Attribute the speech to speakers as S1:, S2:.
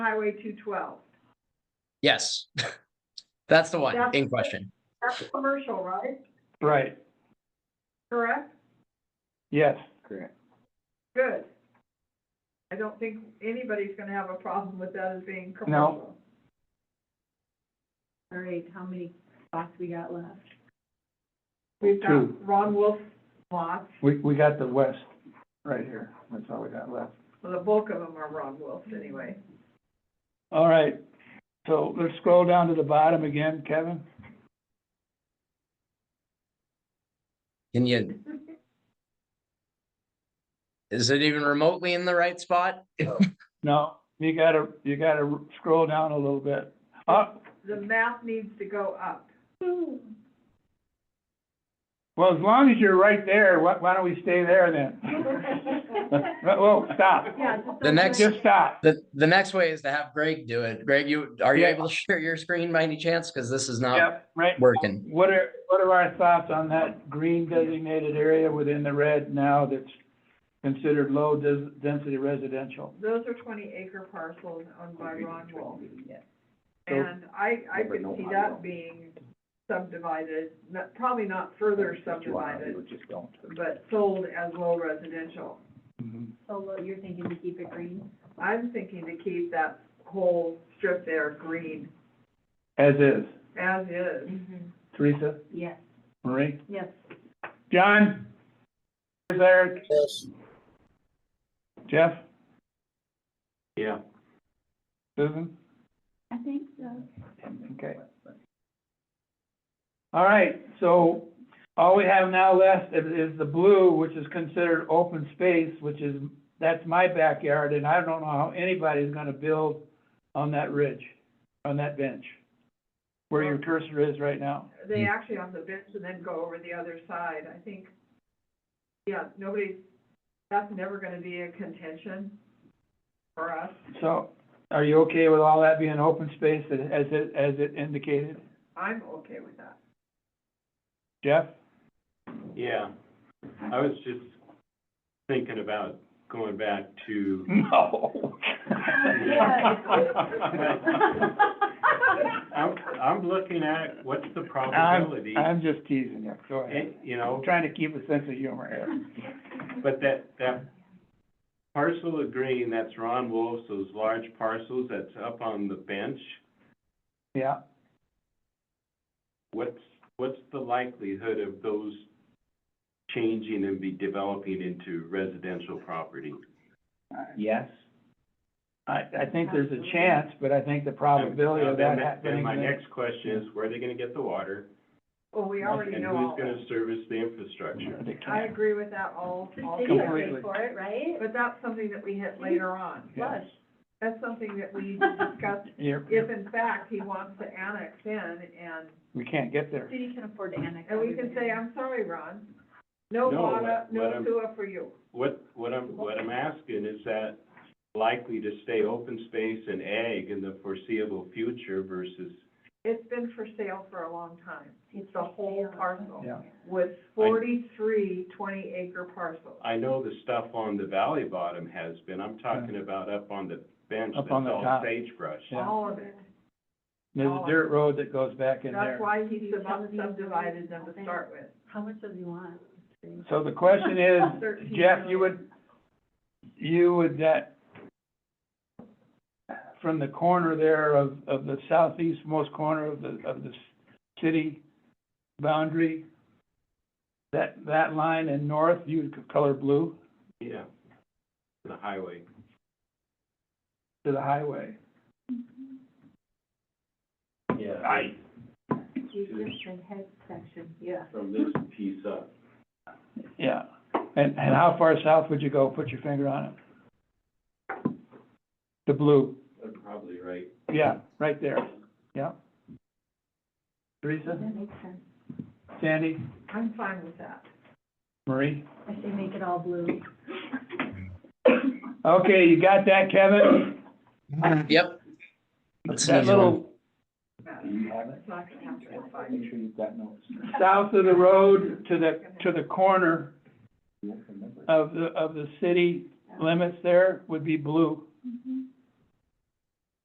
S1: Highway two twelve.
S2: Yes. That's the one
S1: That's-
S2: in question.
S1: That's commercial, right?
S3: Right,
S1: Correct?
S3: yes.
S1: Good. I don't think anybody's gonna have a problem with that as being commercial.
S4: All right, how many spots we got left?
S1: We've
S3: True.
S1: got Ron Wolf lots,
S3: We, we got the west right here, that's all we got left.
S1: well, the bulk of them are Ron Wolf's anyway.
S3: All right, so let's scroll down to the bottom again, Kevin.
S2: Can you? Is it even remotely in the right spot?
S3: No, you gotta, you gotta scroll down a little bit. Uh, Up,
S1: The map needs to go up.
S3: well, as long as you're right there, why, why don't we stay there then? Whoa, stop,
S4: Yeah, just.
S2: The next-
S3: just stop.
S2: The, the next way is to have Greg do it. Greg, you, are you
S3: Yeah.
S2: able to share your screen by any chance? Because this is not
S3: Yep, right,
S2: working.
S3: what are, what are our thoughts on that green designated area within the red now that's considered low des- density residential?
S1: Those are twenty acre parcels owned by Ron Wolf.
S3: So-
S1: And I, I
S5: Never
S1: could
S5: know
S1: see
S5: how
S1: that
S5: long.
S1: being subdivided, not, probably not further
S5: What you wanna do,
S1: subdivided,
S5: just don't.
S1: but sold as low residential.
S3: Mhm.
S4: So Lo, you're thinking to keep it green?
S1: I'm thinking to keep that whole strip there green
S3: As is,
S1: as is.
S4: Mm-hmm.
S3: Teresa,
S4: Yes,
S3: Marie?
S4: yes.
S3: John? Is there? Yes. Jeff?
S5: Yeah.
S3: Susan?
S4: I think so.
S3: Okay. All right, so all we have now left is, is the blue, which is considered open space, which is, that's my backyard, and I don't know how anybody's gonna build on that ridge, on that bench, where your cursor is right now.
S1: They
S5: Hmm.
S1: actually on the bench and then go over the other side, I think. Yeah, nobody, that's never gonna be a contention for us.
S3: So, are you okay with all that being open space as as it, as it indicated?
S1: I'm okay with that.
S3: Jeff?
S6: Yeah, I was just thinking about going back to,
S3: No.
S6: I'm, I'm looking at what's the probability,
S3: I'm, I'm just teasing you, go ahead.
S6: and, you
S3: I'm
S6: know,
S3: trying to keep a sense of humor here.
S6: but that, that parcel of green, that's Ron Wolf's, those large parcels that's up on the bench,
S3: Yeah,
S6: what's, what's the likelihood of those changing and be developing into residential property?
S5: Yes,
S3: I, I think there's a chance, but I think the probability
S6: Now,
S3: of
S6: then
S3: that
S6: my- Then
S3: happening.
S6: my next question is, where are they gonna get the water?
S1: Well, we already
S6: And
S1: know all
S6: who's
S1: that.
S6: gonna service the infrastructure?
S3: They
S1: I
S3: can't.
S1: agree with that all, all,
S4: The city will
S3: Completely.
S4: pay for it, right?
S1: but that's something that we hit later on.
S3: Yeah.
S1: That's something that we need to discuss
S3: You're-
S1: if in fact he wants to annex in and,
S3: we can't get there.
S4: City can um, afford to annex.
S1: and we can say,
S4: everybody.
S1: I'm sorry, Ron. No
S6: No,
S1: water,
S6: what- what
S1: no
S6: I'm-
S1: sewer for you.
S6: What, what I'm, what I'm asking, is that likely to stay open space and ag in the foreseeable future versus,
S1: It's been for sale for a long time. It's the whole parcel
S3: Yeah.
S1: with forty-three twenty-acre parcels.
S6: I know the stuff on the valley bottom has been, I'm talking about up on the bench,
S3: Up
S6: that's
S3: on the
S6: all
S3: top.
S6: sagebrush.
S3: Yeah.
S1: All of it.
S3: There's
S1: Oh.
S3: a dirt road that goes back in there.
S1: That's why he sub- subdivided them to start with.
S4: How much does he want?
S3: So the question is,
S1: Thirteen
S3: Jeff, you
S1: million.
S3: would, you would that, from the corner there of, of the southeastmost corner of the, of the s- city boundary, that, that line in north, you would color blue
S6: Yeah, the highway.
S3: to the highway.
S5: yeah.
S3: I-
S4: You just said head section, yeah.
S5: From this piece up.
S3: Yeah. And, and how far south would you go? Put your finger on it. The blue,
S6: They're probably right.
S3: yeah, right there, yeah. Teresa,
S4: That makes sense.
S3: Sandy,
S1: I'm fine with that.
S3: Marie?
S4: I say make it all blue.
S3: Okay, you got that, Kevin?
S2: Yep. That's an
S3: That
S2: easy one.
S3: little
S5: Do you have it?
S1: It's not gonna happen in five years.
S5: Make sure you've got notes.
S3: south of the road to the, to the corner
S5: You won't remember.
S3: of the, of the city limits there would be blue.